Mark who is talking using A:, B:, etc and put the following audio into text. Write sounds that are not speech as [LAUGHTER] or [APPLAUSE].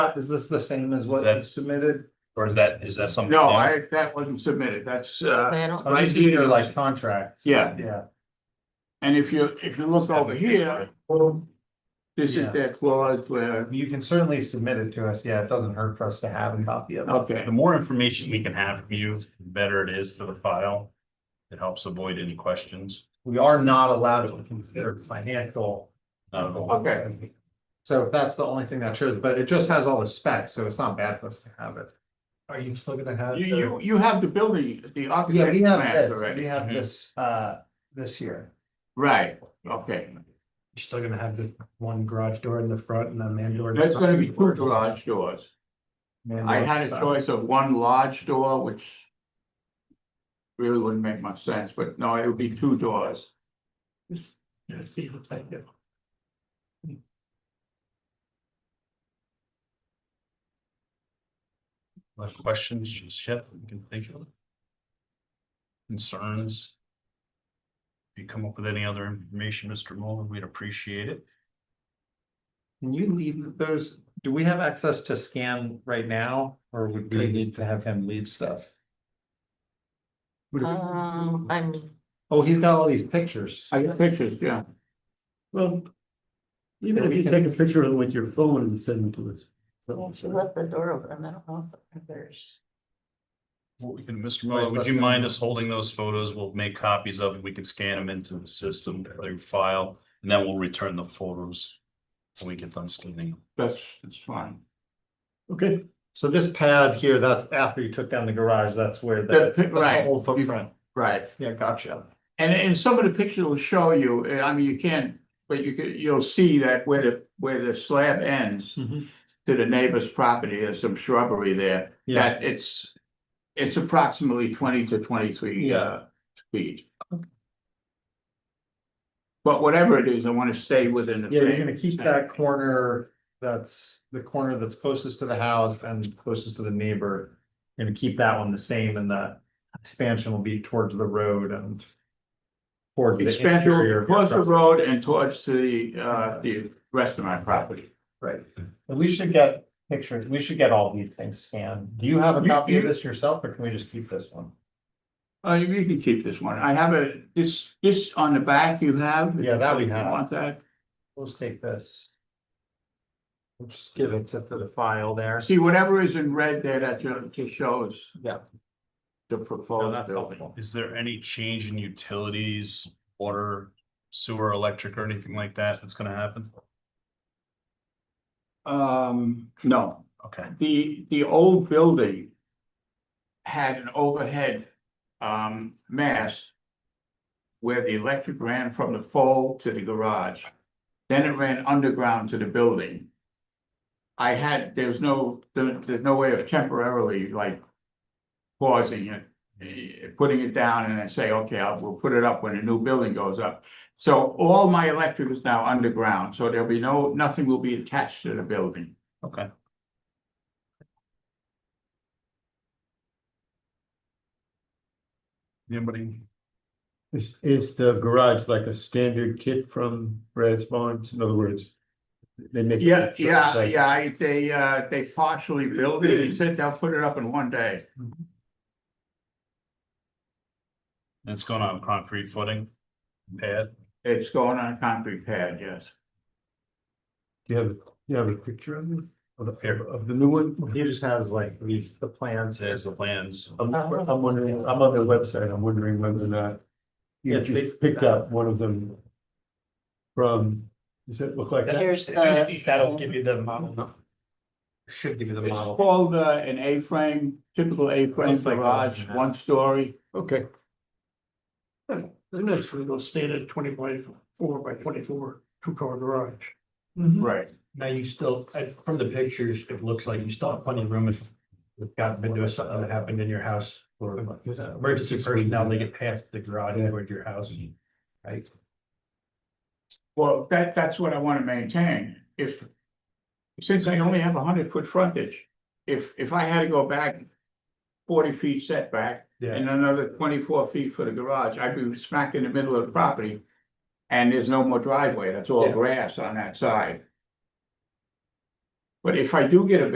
A: Is this the same as what
B: Is that-
A: was submitted?
B: Or is that, is that something?
C: No,
B: new?
C: I, that wasn't submitted, that's, uh,
D: Flannel.
A: Oh, these are your like contracts.
C: Yeah.
A: Yeah.
C: and if you, if you look over here, this
A: Yeah.
C: is that clause where,
A: You can certainly submit it to us. Yeah, it doesn't hurt for us to have a copy of it.
C: okay,
B: The more information we can have from you, the better it is for the file. It helps avoid any questions.
A: We are not allowed to consider financial.
B: Uh,
C: Okay.
A: So if that's the only thing that shows, but it just has all the specs, so it's not bad for us to have it. Are you still gonna have?
C: you, you, you have the building, the
A: Yeah,
C: architect
A: we have
C: plans
A: this, we
C: already,
A: have
B: Mhm.
A: this, uh, this here.
C: right, okay,
A: You're still gonna have the one garage door in the front and the man door.
C: that's gonna be two garage doors. I had a
A: uh,
C: choice of one large door, which. Really wouldn't make much sense, but no, it would be two doors.
B: Other Questions, just Chip, you can think of. Concerns? If you come up with any other information, Mr. Muller, we'd appreciate it.
A: Can you leave those, do we have access to scan right now, or would we need to have him leave stuff?
D: Um, I'm,
A: Oh, he's got all these pictures.
C: I got pictures, yeah,
E: Well. [CLEARS THROAT] Even if you take a picture of it with your phone and send it to us.
D: she left the door open, I don't know if there's.
B: Well, we can, Mr.
A: Right,
B: Muller, would
A: but-
B: you mind us holding those photos? We'll make copies of, them. we can scan them into the system, their file, and then we'll return the photos. When we get done scanning.
C: that's, that's fine.
E: Okay,
A: So this pad here, that's after you took down the garage, that's where
C: The
A: the.
C: pi-
A: that's the
C: right.
A: Old footprint.
C: Right,
A: Yeah, gotcha.
C: and, and some of the pictures will show you, uh, I mean, you can't, but you could, you'll see that where the, where the slab ends.
A: Mhm.
C: To the neighbor's property, there's some shrubbery there,
A: Yeah,
C: that it's, it's approximately twenty to twenty-three, uh, feet. But whatever it is, I wanna stay within the.
A: yeah, you're
C: frame.
A: gonna keep that corner, that's the corner that's closest to the house and closest to the neighbor. You're Gonna keep that one the same and the expansion will be towards the road and. Toward the interior.
C: Expansion towards the road and towards the, uh, the rest of my property.
A: Right, and we should get pictures, we should get all these things scanned. Do you have a
C: You-
A: copy of
C: you-
A: this yourself, or can we just keep this one?
C: Uh, you you can keep this one. I have a, this, this on the back you have.
A: Yeah, that we
C: You
A: have.
C: Want that?
A: We'll just take this. We'll just give it to to the file there.
C: See, whatever is in red there, that ju- just shows
A: Yeah.
C: the
A: Oh, No,
C: proposed
A: that's
C: building.
A: helpful.
B: Is there any change in utilities, water, sewer, electric, or anything like that that's gonna happen?
C: Um, no,
B: Okay,
C: the, the old building had an overhead, um, mast where the electric ran from the pole to the garage. Then it ran underground to the building. I had, there's no, there- there's no way of temporarily like pausing it, eh, putting it down and then say, okay, I'll, we'll put it up when a new building goes up. So all my electric is now underground, so there'll be no, nothing will be attached to the building.
B: okay. Anybody?
E: is, is the garage like a standard kit from Brad's Barnes? In other words, they make. it
C: Yeah,
E: sure it's
C: yeah,
E: like-
C: yeah, I- they, uh, they partially built it, they said they'll put it up in one day.
B: And It's going on concrete footing, pad,
C: It's going on a concrete pad, yes.
E: Do you have, do you have a picture of it? Of the,
B: Here.
E: of the new one?
A: He just has like these, the plans here.
B: there's the plans.
E: I'm, I'm wondering, I'm on their website, I'm wondering whether or not.
A: Yeah,
E: You
A: it's-
E: just picked up one of them. From, does it look like that?
D: Here's
A: Uh,
D: the,
A: That'll give you the model. Should give you the
C: It's called, uh, an A-frame, typical A-frame
A: Looks like a-
C: garage, one story.
E: Okay.
F: The next one goes standard twenty by four by twenty-four, two-car garage.
C: Right.
F: Now you still, I- from the pictures, it looks like you still have plenty of room if you've gotten into something that happened in your house. Or uh, emergency personnel, they get past the garage and toward your house. Right?
C: Well, that, that's what I wanna maintain, if, since I only have a hundred foot frontage, if, if I had to go back forty feet setback
F: Yeah,
C: and another twenty-four feet for the garage, I'd be smack in the middle of the property. And there's no more driveway, that's all
F: Yeah.
C: grass on that side. But if I do get a